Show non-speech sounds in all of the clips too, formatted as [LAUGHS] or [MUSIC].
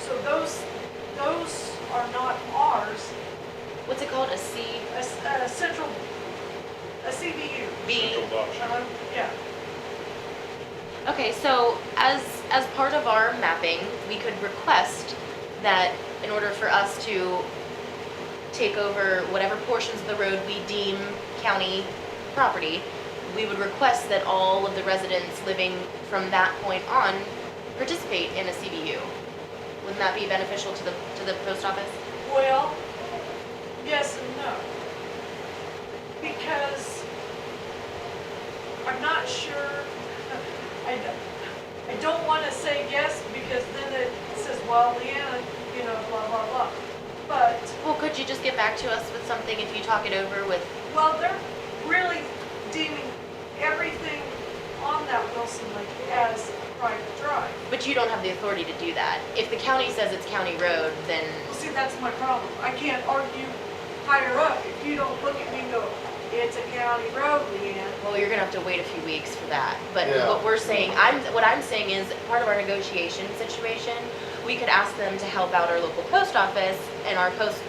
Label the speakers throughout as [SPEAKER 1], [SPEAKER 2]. [SPEAKER 1] So those, those are not ours,
[SPEAKER 2] What's it called? A C
[SPEAKER 1] a, s- a central, a CBU.
[SPEAKER 2] B?
[SPEAKER 3] Central Box.
[SPEAKER 1] Um, yeah,
[SPEAKER 2] Okay, so as, as part of our mapping, we could request that in order for us to take over whatever portions of the road we deem county property, we would request that all of the residents living from that point on participate in a CBU. Wouldn't that be beneficial to the, to the post office?
[SPEAKER 1] well, yes and no. Because I'm not sure, [LAUGHS] I, d- I don't wanna say yes because then it says, well, Leanna, you know, blah, blah, blah. But
[SPEAKER 2] Well, could you just get back to us with something if you talk it over with,
[SPEAKER 1] Well, they're really deeming everything on that Wilson Lake as private drive.
[SPEAKER 2] but you don't have the authority to do that. If the county says it's county road, then,
[SPEAKER 1] Well, see, that's my problem. I can't argue higher up if you don't look at me and go, it's a county road, Leanne.
[SPEAKER 2] well, you're gonna have to wait a few weeks for that. But
[SPEAKER 4] Yeah.
[SPEAKER 2] what we're saying, I'm, what I'm saying is, part of our negotiation situation, we could ask them to help out our local post office and our post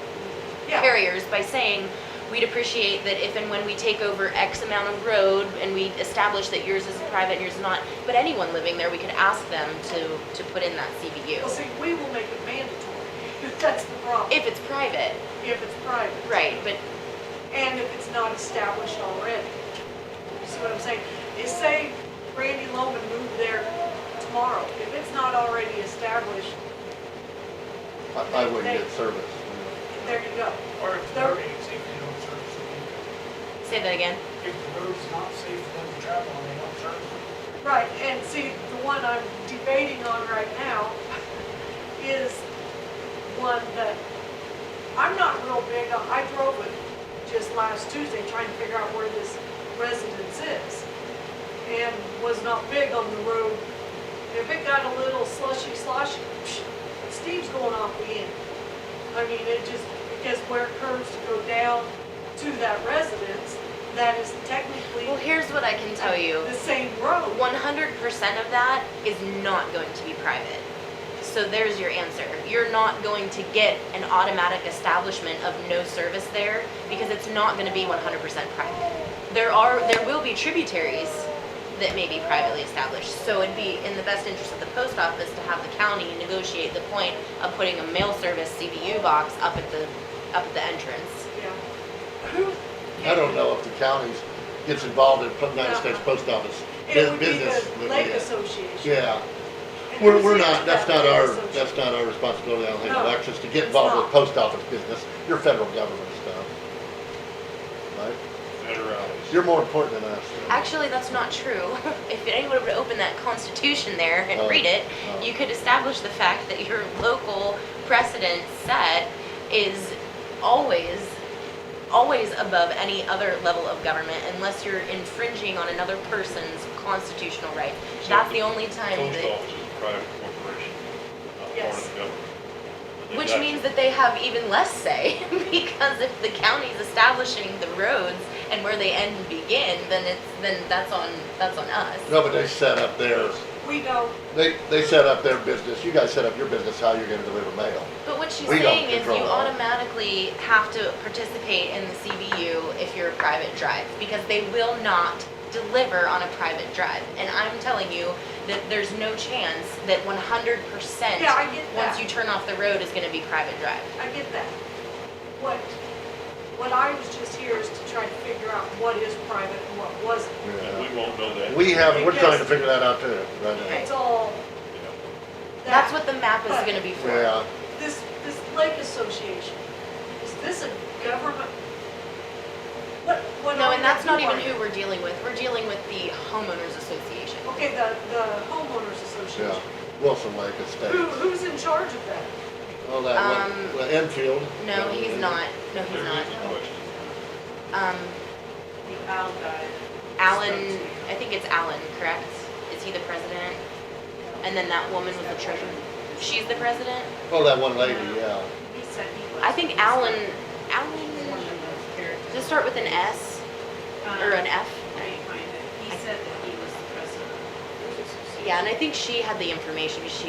[SPEAKER 1] Yeah,
[SPEAKER 2] carriers by saying, we'd appreciate that if and when we take over X amount of road and we establish that yours is private and yours is not, but anyone living there, we could ask them to, to put in that
[SPEAKER 1] well,
[SPEAKER 2] CBU.
[SPEAKER 1] see, we will make it mandatory. [LAUGHS] That's the problem,
[SPEAKER 2] If it's private,
[SPEAKER 1] if it's private.
[SPEAKER 2] right, but
[SPEAKER 1] And if it's not established already. You See what I'm saying? Is say Randy Loman moved there tomorrow. If it's not already established,
[SPEAKER 4] I, I wouldn't get service.
[SPEAKER 1] there you go.
[SPEAKER 5] Or if the
[SPEAKER 1] There-
[SPEAKER 5] road ain't safe, they don't service it.
[SPEAKER 2] say that again.
[SPEAKER 5] If the road's not safe for them to travel and they don't service it.
[SPEAKER 1] Right, and see, the one I'm debating on right now is one that I'm not real big on. I drove it just last Tuesday trying to figure out where this residence is. And was not big on the road. If it got a little slushy sloshy, psh, Steve's going off the end. I mean, it just, because where it curves to go down to that residence, that is technically
[SPEAKER 2] Well, here's what I can tell you.
[SPEAKER 1] the same road.
[SPEAKER 2] 100% of that is not going to be private. So there's your answer. You're not going to get an automatic establishment of no service there because it's not going to be 100% private. There are there will be tributaries that may be privately established. So it'd be in the best interest of the post office to have the county negotiate the point of putting a mail service CBU box up at the up at the entrance.
[SPEAKER 1] Yeah. Who?
[SPEAKER 4] I don't know if the county gets involved in putting United States Post Office
[SPEAKER 1] It
[SPEAKER 4] bu-
[SPEAKER 1] would be
[SPEAKER 4] business.
[SPEAKER 1] the
[SPEAKER 4] with
[SPEAKER 1] lake
[SPEAKER 4] it.
[SPEAKER 1] association.
[SPEAKER 4] Yeah,
[SPEAKER 1] And
[SPEAKER 4] we're,
[SPEAKER 1] who's
[SPEAKER 4] we're
[SPEAKER 1] in
[SPEAKER 4] not, that's
[SPEAKER 1] that
[SPEAKER 4] not our,
[SPEAKER 1] lake association?
[SPEAKER 4] that's not our responsibility, I don't think,
[SPEAKER 1] No,
[SPEAKER 4] Alexis, to
[SPEAKER 1] it's
[SPEAKER 4] get involved with
[SPEAKER 1] not.
[SPEAKER 4] post office business, your federal government stuff. Right?
[SPEAKER 3] Federalized.
[SPEAKER 4] You're more important than us. though.
[SPEAKER 2] Actually, that's not true. [LAUGHS] If anyone would open that constitution there and
[SPEAKER 4] Oh,
[SPEAKER 2] read it,
[SPEAKER 4] oh.
[SPEAKER 2] you could establish the fact that your local precedent set is always, always above any other level of government unless you're infringing on another person's constitutional right.
[SPEAKER 3] So
[SPEAKER 2] That's
[SPEAKER 3] if
[SPEAKER 2] the only time
[SPEAKER 3] Post
[SPEAKER 2] that,
[SPEAKER 3] office is a private corporation, not part
[SPEAKER 1] Yes.
[SPEAKER 3] of the government. And
[SPEAKER 2] which
[SPEAKER 3] that's-
[SPEAKER 2] means that they have even less say [LAUGHS] because if the county's establishing the roads and where they end and begin, then it's, then that's on, that's on us.
[SPEAKER 4] No, but they set up their,
[SPEAKER 1] We don't,
[SPEAKER 4] they, they set up their business, you guys set up your business, how you're gonna deliver mail.
[SPEAKER 2] But what she's
[SPEAKER 4] We don't
[SPEAKER 2] saying is you
[SPEAKER 4] control that.
[SPEAKER 2] automatically have to participate in the CBU if you're a private drive, because they will not deliver on a private drive. And I'm telling you that there's no chance that one hundred percent,
[SPEAKER 1] Yeah, I get that.
[SPEAKER 2] once you turn off the road, is gonna be private drive.
[SPEAKER 1] I get that. What, what I was just here is to try to figure out what is private and what wasn't.
[SPEAKER 3] And we won't know that.
[SPEAKER 4] We have, we're trying to
[SPEAKER 1] Because-
[SPEAKER 4] figure that out too, right
[SPEAKER 1] It's all
[SPEAKER 3] Yeah.
[SPEAKER 1] that.
[SPEAKER 2] That's what the map is
[SPEAKER 1] But-
[SPEAKER 2] gonna be
[SPEAKER 4] now.
[SPEAKER 2] for.
[SPEAKER 4] Yeah,
[SPEAKER 1] This, this lake association, is this a government? What, what?
[SPEAKER 2] No,
[SPEAKER 1] are
[SPEAKER 2] and that's
[SPEAKER 1] they-
[SPEAKER 2] not even
[SPEAKER 1] are
[SPEAKER 2] who we're dealing with, we're dealing with the homeowners association.
[SPEAKER 1] they- Okay, the, the homeowners
[SPEAKER 4] yeah,
[SPEAKER 1] association.
[SPEAKER 4] Wilson Lake
[SPEAKER 1] Who,
[SPEAKER 4] Estates.
[SPEAKER 1] who's in charge of that?
[SPEAKER 4] Well, that
[SPEAKER 2] Um,
[SPEAKER 4] one, well, Enfield.
[SPEAKER 2] No, he's not, no, he's
[SPEAKER 3] There
[SPEAKER 2] not.
[SPEAKER 3] is a question.
[SPEAKER 2] Um,
[SPEAKER 1] The Al guy.
[SPEAKER 2] Alan, I think it's Alan, correct? Is he the president? And then that woman was the treasurer. She's the president?
[SPEAKER 4] Oh, that one lady, yeah.
[SPEAKER 1] He said he was.
[SPEAKER 2] I think Alan, Alan, does it start with an S
[SPEAKER 6] uh,
[SPEAKER 2] or an F?
[SPEAKER 6] He said that he was the president.
[SPEAKER 2] Yeah, and I think she had the information. She